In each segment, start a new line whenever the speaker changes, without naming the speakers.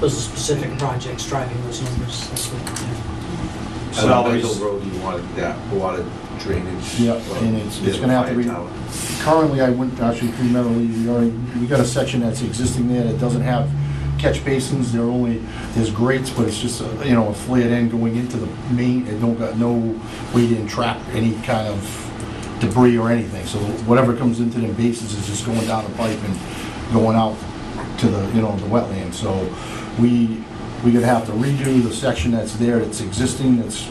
Those are specific projects driving those numbers, that's what, yeah.
So
Salaries.
Basil Road, you wanted that water drainage.
Yeah, and it's- it's gonna have to be-
Firepower.
Currently, I wouldn't actually primarily, we already, we got a section that's existing there that doesn't have catch basins, there are only, there's grates, but it's just, a, you know, a flared end going into the main, it don't got no way to entrap any kind of debris or anything, so whatever comes into them basins is just going down the pipe and going out to the, you know, the wetland, so we, we are gonna have to redo the section that's there, that's existing, that's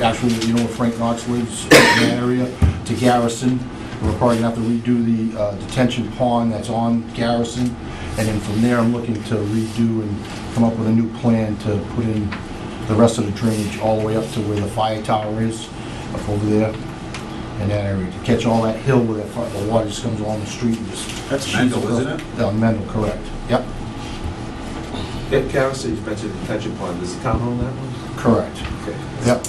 actually, you know, where Frank Knox lives, in that area, to Garrison. We're probably gonna have to redo the uh, detention pond that's on Garrison, and then from there, I'm looking to redo and come up with a new plan to put in the rest of the drainage all the way up to where the fire tower is, up over there, in that area, to catch all that hill where the fi- the water just comes along the street and just...
That's Mendel, isn't it?
Uh, Mendel, correct, yep,
Yeah, Garrison, you mentioned the detention pond, does the town own that one?
correct.
Okay.
Yep.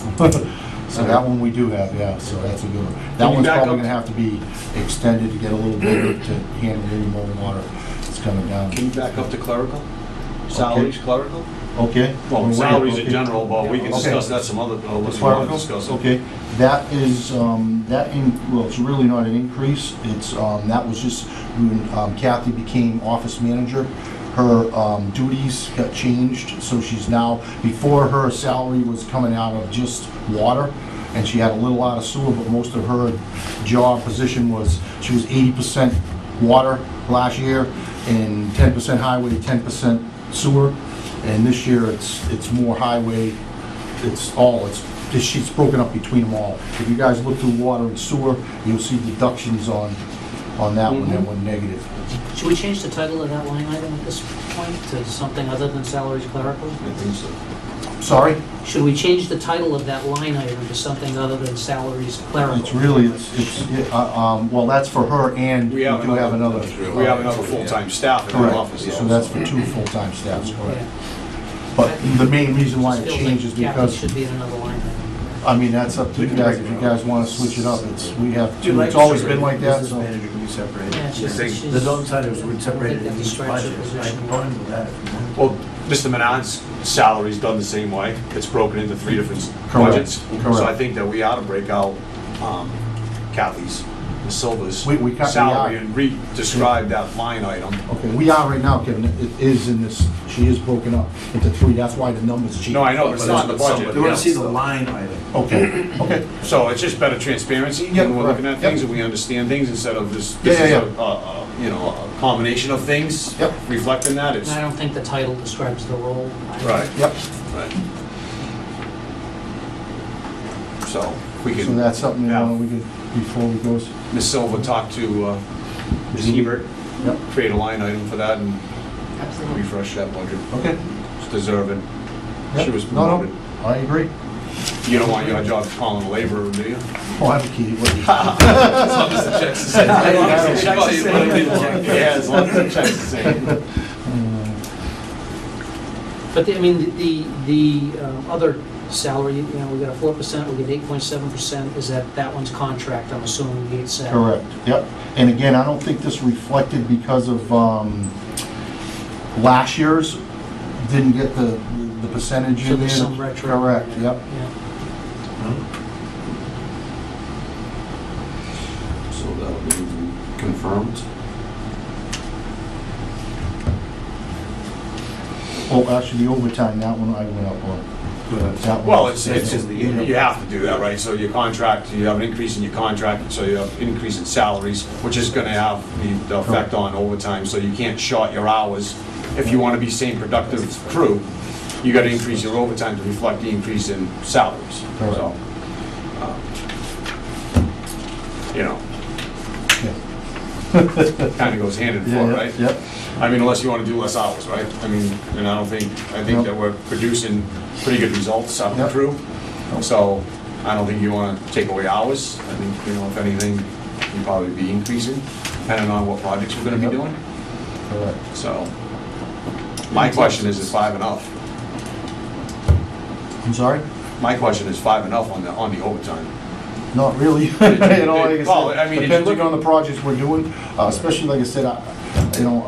So that one we do have, yeah, so that's a good one. That
you
one's
back
probably
up?
gonna have to be extended to get a little bigger to handle any more water that's coming down.
Can you back up to clerical? Salaries clerical?
Okay?
Well,
We're
salaries
okay.
in general, but we can
Okay.
discuss that some other, uh,
As
if you
far
want
as-
to discuss. it.
Okay, that is, um, that in, well, it's really not an increase, it's, um, that was just when um, Kathy became office manager, her, um, duties got changed, so she's now, before her salary was coming out of just water, and she had a little out of sewer, but most of her job position was, she was eighty percent water last year, and ten percent highway, ten percent sewer, and this year, it's, it's more highway, it's all, it's, this sheet's broken up between them all. If you guys look through water and sewer, you'll see deductions on, on that one, that one negative.
Should we change the title of that line item at this point to something other than salaries clerical?
I think so.
Sorry?
Should we change the title of that line item to something other than salaries clerical?
It's really, it's, it's, yeah, uh, um, well, that's for her and we
We
do
have
have
another-
another.
We have another full-time staff in our
Correct,
office.
so that's for two full-time staffs, correct.
Yeah.
But the main reason why it
Just feel like
changes
Captain
because,
should be in another line item.
I mean, that's up to you guys, if you guys wanna switch it up, it's, we have, two. it's always been like that,
Business
so.
manager can be separated.
Yeah, it's just-
think-
she's-
The downside is
I
we'd
don't
separate
think
it
that
in each
describes your
budget.
position.
I'm fine with that. if you want.
Well, Mr. Manon's salary's done the same way. It's broken into three different
Correct,
budgets. So I
correct.
think that we ought to break out um, Kathy's, Ms. Silva's
We- we cut- we
salary
are.
and re-describe that line item.
Okay, we are right now, Kevin, it is in this, she is broken up into three, that's why the numbers change.
No, I know, but it's not in the budget.
They want
Yeah.
to see the line item.
Okay, okay,
So it's just better transparency,
Yep,
and we're looking
right,
at things,
yep.
and we understand things instead of this,
Yeah,
this is
yeah,
a, a- a, you know, a combination of things.
Yep.
Reflecting that,
And
it's,
I don't think the title describes the role. I-
right,
yep.
right. So, we
So
can,
that's something, you know, we could, before we goes.
Ms. Silva talked to uh, Ms. Hebert,
Yep.
create a line item for that and
Absolutely.
refresh that budget.
Okay.
It's deserving. She
Yep.
was
No,
promoted.
no, I agree.
You don't want your job calling a laborer, do you?
Oh, I have a key, what,
As long as the checks are sent.
As long as the
checks are sent.
Yeah, as long as the check's the same.
But, the- I mean, the, the um, other salary, you know, we got a four percent, we get eight point seven percent, is that, that one's contract, I'm assuming, the eight set.
correct, yep. And again, I don't think this reflected because of, um, last year's, didn't get the, the percentage in
So
there.
there's some retro.
Correct, yep.
Yeah.
So that'll be confirmed.
Oh, actually, the overtime, that one I went up on. That one-
Well, it's, it's,
that's-
you you have to do that, right? So your contract, you have an increase in your contract, so you have increase in salaries, which is gonna have the- the effect on overtime, so you can't short your hours. If you wanna be same productive crew, you gotta increase your overtime to reflect the increase in salaries,
Correct.
so. um, You know,
Yeah.
kinda goes hand in
Yeah,
hand,
yeah,
right?
Yep,
I mean, unless you want to do less hours, right? I mean, and I don't think, I
No.
think that we're producing pretty good results out of the
Yep.
crew. So I don't think you want to take away hours. I think, you know, if anything, you'd probably be increasing, depending on what projects we're going to
Yep.
be doing.
correct.
So my question is, is five enough?
I'm sorry?
My question is five enough on the, on the overtime?
Not really. you know, like I
Well, I
said,
mean, it's-
depending on the projects we're doing, uh, especially like I said, I, you know,